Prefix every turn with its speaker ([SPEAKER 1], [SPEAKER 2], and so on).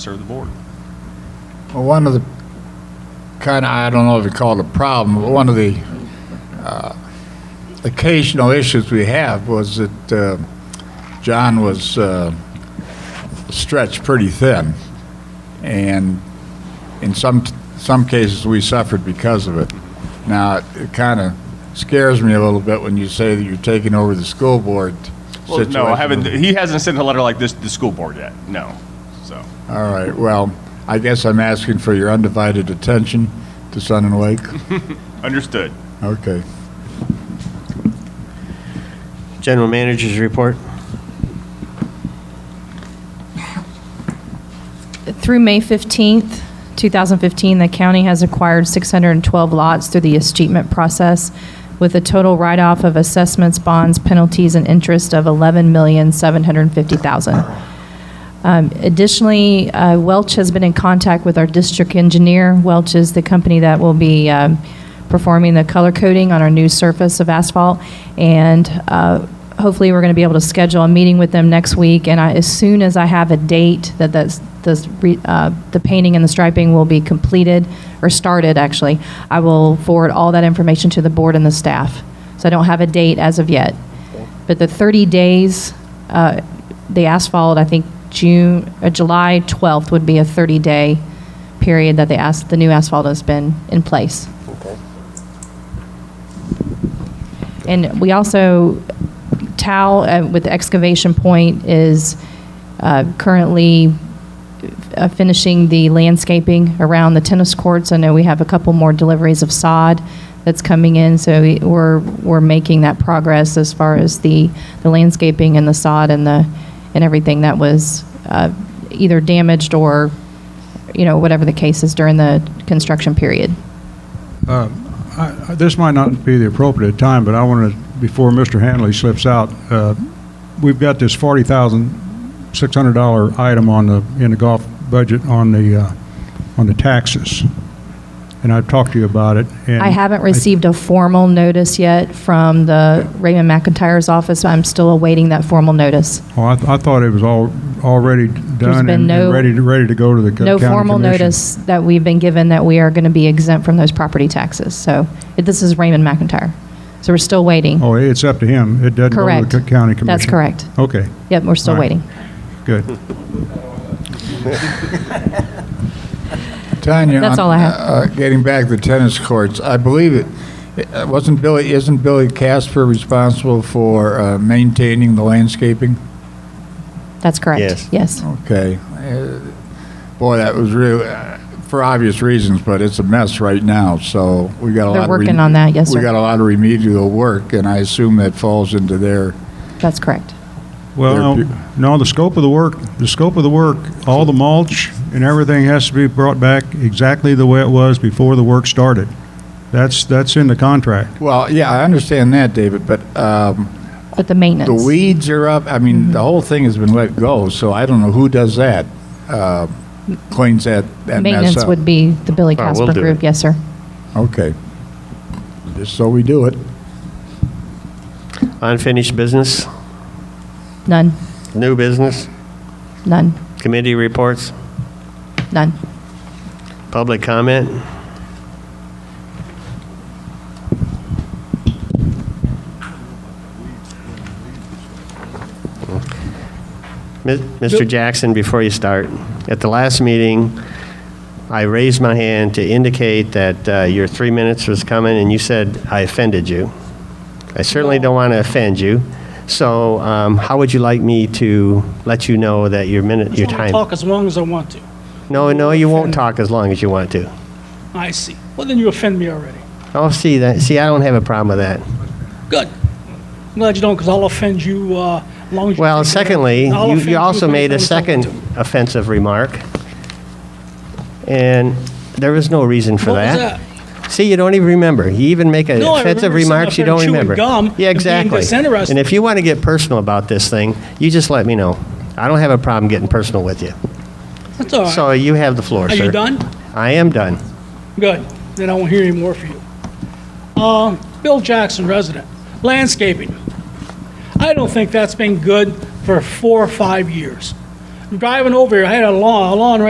[SPEAKER 1] serve the board.
[SPEAKER 2] Well, one of the, kind of, I don't know if you call it a problem, but one of the uh, occasional issues we have was that uh, John was uh, stretched pretty thin. And in some, some cases, we suffered because of it. Now, it kind of scares me a little bit when you say that you're taking over the school board
[SPEAKER 1] Well,
[SPEAKER 2] situation.
[SPEAKER 1] no, I haven't, he hasn't sent a letter like this to the school board yet, no, so.
[SPEAKER 2] All right, well, I guess I'm asking for your undivided attention to Sun and Lake.
[SPEAKER 1] Understood.
[SPEAKER 2] Okay.
[SPEAKER 3] General Managers Report.
[SPEAKER 4] Through May 15th, 2015, the county has acquired 612 lots through the escheatment process with a total write-off of assessments, bonds, penalties, and interest of $11,750,000. Um, Additionally, uh, Welch has been in contact with our district engineer. Welch is the company that will be um, performing the color coding on our new surface of asphalt, and uh, hopefully, we're going to be able to schedule a meeting with them next week, and I- as soon as I have a date that that's- this re- uh, the painting and the striping will be completed, or started, actually, I will forward all that information to the board and the staff. So I don't have a date as of yet. But the 30 days, uh, the asphalt, I think June, uh, July 12th would be a 30-day period that the as, the new asphalt has been in place. And we also, Tal uh, with Excavation Point is uh, currently uh, finishing the landscaping around the tennis courts. I know we have a couple more deliveries of sod that's coming in, so we- we're, we're making that progress as far as the, the landscaping and the sod and the, and everything that was uh, either damaged or, you know, whatever the case is during the construction period.
[SPEAKER 5] I- I- Uh, This might not be the appropriate time, but I want to, before Mr. Hanley slips out, uh, we've got this $40,600 item on the, in the golf budget on the, uh, on the taxes. And I've talked to you about it. and
[SPEAKER 4] I haven't received a formal notice yet from the Raymond McIntyre's office. I'm still awaiting that formal notice.
[SPEAKER 5] Oh, I, th- I thought it was all, already done
[SPEAKER 4] been
[SPEAKER 5] and
[SPEAKER 4] no-
[SPEAKER 5] and ready, to- ready to go to the co-
[SPEAKER 4] No
[SPEAKER 5] county
[SPEAKER 4] formal
[SPEAKER 5] commission.
[SPEAKER 4] notice that we've been given that we are going to be exempt from those property taxes. So it- this is Raymond McIntyre. So we're still waiting.
[SPEAKER 5] Oh, it's up to him. It doesn't go to the
[SPEAKER 4] Correct.
[SPEAKER 5] co- county commission.
[SPEAKER 4] That's correct.
[SPEAKER 5] Okay,
[SPEAKER 4] Yep, we're still
[SPEAKER 5] All right.
[SPEAKER 4] waiting.
[SPEAKER 5] good.
[SPEAKER 2] Tanya,
[SPEAKER 4] That's
[SPEAKER 2] on-
[SPEAKER 4] all I have.
[SPEAKER 2] uh, Getting back to tennis courts, I believe it, uh, wasn't Billy, isn't Billy Casper responsible for uh, maintaining the landscaping?
[SPEAKER 4] That's correct.
[SPEAKER 3] Yes.
[SPEAKER 4] Yes.
[SPEAKER 5] Oh.
[SPEAKER 2] Okay. Uh, Boy, that was real, uh, for obvious reasons, but it's a mess right now, so we got a lot.
[SPEAKER 4] They're
[SPEAKER 2] of re-
[SPEAKER 4] working on that, yes,
[SPEAKER 2] We
[SPEAKER 4] sir.
[SPEAKER 2] got a lot of remedial work, and I assume that falls into their,
[SPEAKER 4] That's correct.
[SPEAKER 5] Well,
[SPEAKER 2] There-
[SPEAKER 5] no, no, the scope of the work, the scope of the work, all the mulch and everything has to be brought back exactly the way it was before the work started. That's, that's in the contract.
[SPEAKER 2] well, yeah, I understand that, David, but um,
[SPEAKER 4] But the maintenance.
[SPEAKER 2] The weeds are up. I mean,
[SPEAKER 4] Mm-hmm.
[SPEAKER 2] the whole thing has been let go, so I don't know who does that. Uh, cleans that, that mess
[SPEAKER 4] Maintenance
[SPEAKER 2] up.
[SPEAKER 4] would be the Billy
[SPEAKER 3] Oh, we'll
[SPEAKER 4] Casper
[SPEAKER 3] do
[SPEAKER 4] group.
[SPEAKER 3] it.
[SPEAKER 4] Yes, sir.
[SPEAKER 2] Okay. Just so we do it.
[SPEAKER 3] Unfinished business,
[SPEAKER 4] None,
[SPEAKER 3] new business,
[SPEAKER 4] none,
[SPEAKER 3] committee reports,
[SPEAKER 4] none.
[SPEAKER 3] public comment. Mi- Mr. Jackson, before you start, at the last meeting, I raised my hand to indicate that uh, your three minutes was coming, and you said I offended you. I certainly don't want to offend you, so um, how would you like me to let you know that your minute, your
[SPEAKER 6] I wanna
[SPEAKER 3] time?
[SPEAKER 6] Talk as long as I want to.
[SPEAKER 3] No, no, you won't talk as long as you want to.
[SPEAKER 6] I see. Well, then you offend me already.
[SPEAKER 3] Oh, see that. See, I don't have a problem with that.
[SPEAKER 6] Good. I'm glad you don't, because I'll offend you uh, as long as you.
[SPEAKER 3] Well,
[SPEAKER 6] think that-
[SPEAKER 3] secondly,
[SPEAKER 6] I'll
[SPEAKER 3] you,
[SPEAKER 6] offend
[SPEAKER 3] you also
[SPEAKER 6] as many
[SPEAKER 3] made a
[SPEAKER 6] times as I want
[SPEAKER 3] second
[SPEAKER 6] to.
[SPEAKER 3] offensive remark, and there is no reason for
[SPEAKER 6] What was
[SPEAKER 3] that. See, you don't even remember. You even make a
[SPEAKER 6] No, I
[SPEAKER 3] offensive
[SPEAKER 6] remember sitting
[SPEAKER 3] remarks
[SPEAKER 6] up
[SPEAKER 3] you
[SPEAKER 6] there
[SPEAKER 3] don't
[SPEAKER 6] chewing
[SPEAKER 3] remember.
[SPEAKER 6] gum and
[SPEAKER 3] yeah,
[SPEAKER 6] being
[SPEAKER 3] exactly.
[SPEAKER 6] disinterested.
[SPEAKER 3] and if you want to get personal about this thing, you just let me know. I don't have a problem getting personal with you.
[SPEAKER 6] That's all right.
[SPEAKER 3] So you have the floor,
[SPEAKER 6] Are
[SPEAKER 3] sir.
[SPEAKER 6] you done?
[SPEAKER 3] I am done.
[SPEAKER 6] Good. Then I won't hear any more from you. Um, Bill Jackson, resident. Landscaping. I don't think that's been good for four or five years. Driving over here, I had a lawn, a lawn